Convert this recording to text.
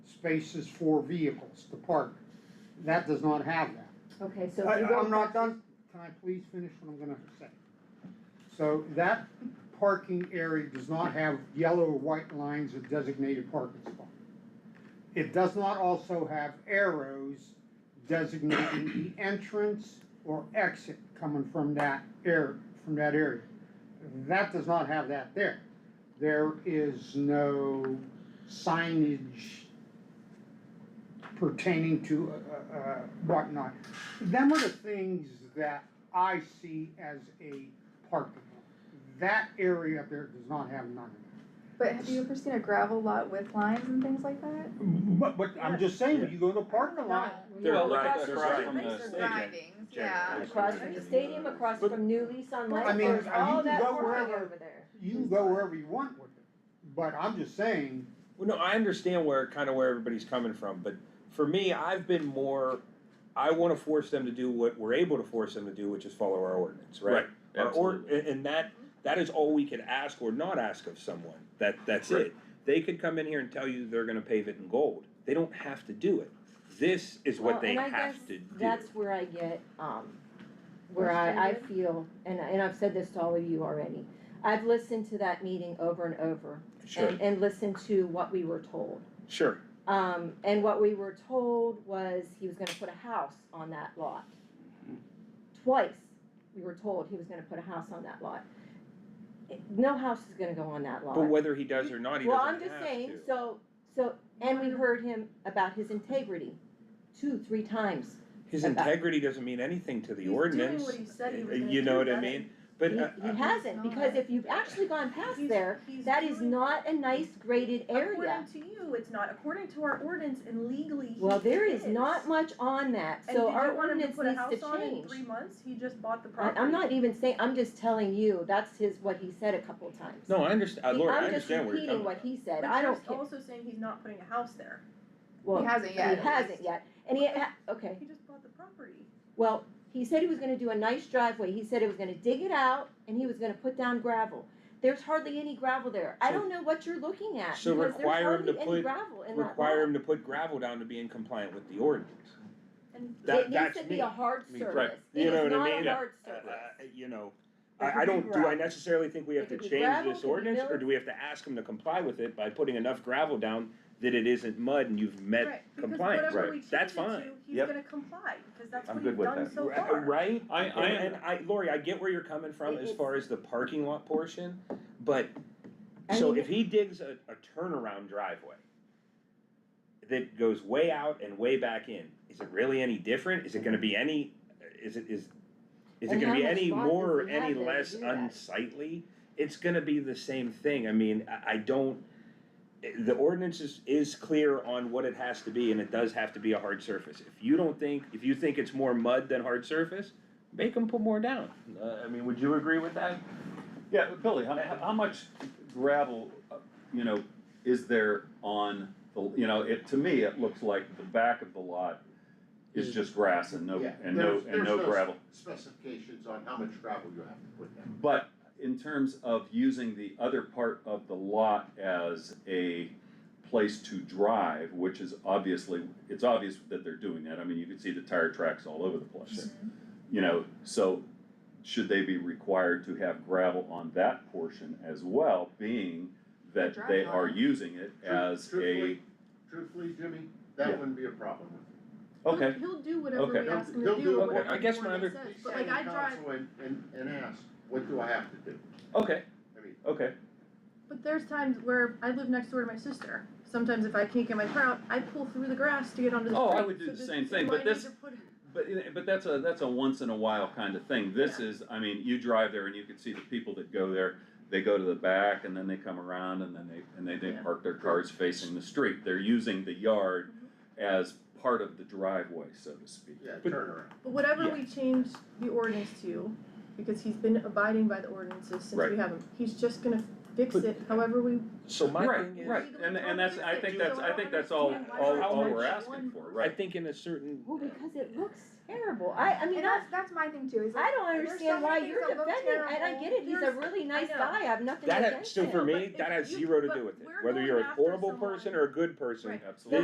spaces for vehicles to park. That does not have that. Okay, so if I, you go. I'm not back- done, can I please finish what I'm gonna say? So that parking area does not have yellow or white lines of designated parking spot. It does not also have arrows designating the entrance or exit coming from that air, from that area. That does not have that there. There is no signage pertaining to, uh, uh, whatnot. Them are the things that I see as a parking lot. That area up there does not have none of But have you ever seen a gravel lot with lines and things like that? that. But, but I'm just saying, when you go to a parking lot, They're Well, right across- across right from the next to stadium. grindings, Jack, yeah. right. Across from the stadium, across But- from New Lease on Life, Right. I mean, there's you all can that go parking wherever. over there. you can go wherever you want with it. But I'm just saying, Well, no, I understand where, kind of where everybody's coming from, but for me, I've been more, I wanna force them to do what we're able to force them to do, which is follow our ordinance, right? Our or, absolutely. and, and that, that is all we can ask or not ask of someone, that, that's Right. it. They could come in here and tell you they're gonna pave it in gold, they don't have to do it, this is what Well, they and I have guess to do. That's where I get, um, where I, I Frustrated? feel, and, and I've said this to all of you already, I've listened to that meeting over and over Sure, and, and listened to what we were told. sure, Um, and what we were told was he was gonna put a house on that lot. Twice, we were told he was gonna put a house on that lot. It- No house is gonna go on that lot. but whether he does or not, he Well, I'm doesn't have to. just saying, so, so, and we heard him about his integrity two, three times. His about- integrity doesn't mean anything to the ordinance, uh, He's doing what he said he was gonna do. you know what I that's- mean? But, He, uh, he uh, hasn't, because if you've actually gone past He's- there, he's that is doing- not a nice graded area. According to you, it's not, according to our ordinance and legally he Well, there is is. not much on that, And so did you our want him to ordinance put a needs to house on in change. Three months, he just bought the I, property. I'm not even saying, I'm just telling you, that's his, what he said a couple of times. No, I understand, Lord, I understand where you're coming am just repeating what from. he But said, I you're don't care, also saying he's not putting a house there, well, He hasn't he yet. at hasn't least. yet, and he, ha- okay, he just bought the property. well, he said he was gonna do a nice driveway, he said he was gonna dig it out, and he was gonna put down gravel. There's hardly any gravel there, I So- don't know what you're looking at, So because there's require him hardly to any put- gravel in that lot. Require him to put gravel down to be in compliant with the ordinance. And That, It needs that's to be me. a hard Me, right. surface, it You know is what I not mean? a Yeah. hard Uh, surface. uh, You know, It could I, I be don't, do I gravel. necessarily think we It have to could be change gravel, it this could be ordinance, or built. do we have to ask him to comply with it by putting enough gravel down that it isn't mud and you've met, Right, because compliance, whatever right. we change That's it to, fine. he's Yep. gonna comply, because that's I'm what good he's with done that. so Ra- far. right? I, I And, and am, I, Lori, I get where you're coming from as It's- far as the parking lot portion, but, I so mean- if he digs a, a turnaround driveway that goes way out and way back in, is it really any different? Is it gonna be any, is it, is, is it And gonna how be much any longer more or does he have any there to less do that? unsightly? It's gonna be the same thing. I mean, I, I don't, the ordinance is, is clear on what it has to be, and it does have to be a hard surface. If you don't think, if you think it's more mud than hard surface, make them put more down. Uh, I mean, would you agree with that? yeah, but Billy, how, how how much gravel, uh, you know, is there on, the? you know, it, to me, it looks like the back of the lot is just grass and no, Yeah, and no, there's- and no there's gravel. Specifications on how much gravel you have to put down. But in terms of using the other part of the lot as a place to drive, which is obviously, it's obvious that they're doing that, I mean, you can see the tire tracks all over the place. You know, so should they be required to have gravel on that portion as well, being that They're they driving are on it. using it as a, Truthfully, truthfully, Jimmy, Yeah. that wouldn't be a problem with me. okay, He'll do whatever Okay. we ask him He'll to do do, or what- whatever I guess my ordinance other- says, but like I Send drive. counsel and, and, and ask, what do I have to do? okay, I mean, okay, But there's times where I live next door to my sister. Sometimes if I can't get my car out, I pull through the grass to get onto the Oh, I street. would do So the this- same so thing, I but need this- to put- but, but that's a, that's a once in a while kind of thing, this is, I mean, you drive there and you can see the people that go there, they go to the back and then they come around and then they, and they, they Yeah. park their cars facing the street, they're using the yard as part of the driveway, so to speak. yeah, But- turnaround. But whatever Yeah. we change the ordinance to, because he's been abiding by the ordinances since Right. we have him, he's just gonna fix But- it however we. So my Right, thing is, Right, and, and that's, I think that's, I think that's all, all, all we're asking for, I right? think in a certain, Well, because it looks terrible. I, I mean, And I, that's, that's my thing too, is I like, don't there's so understand many why things you're that look defending, and I terrible. get it, he's a There's- really I nice know. guy, I have nothing that, against so him. for No, but me, if that has you- zero to but do with it. we're Whether going you're a after horrible someone- person or a good person, Right. Absolutely.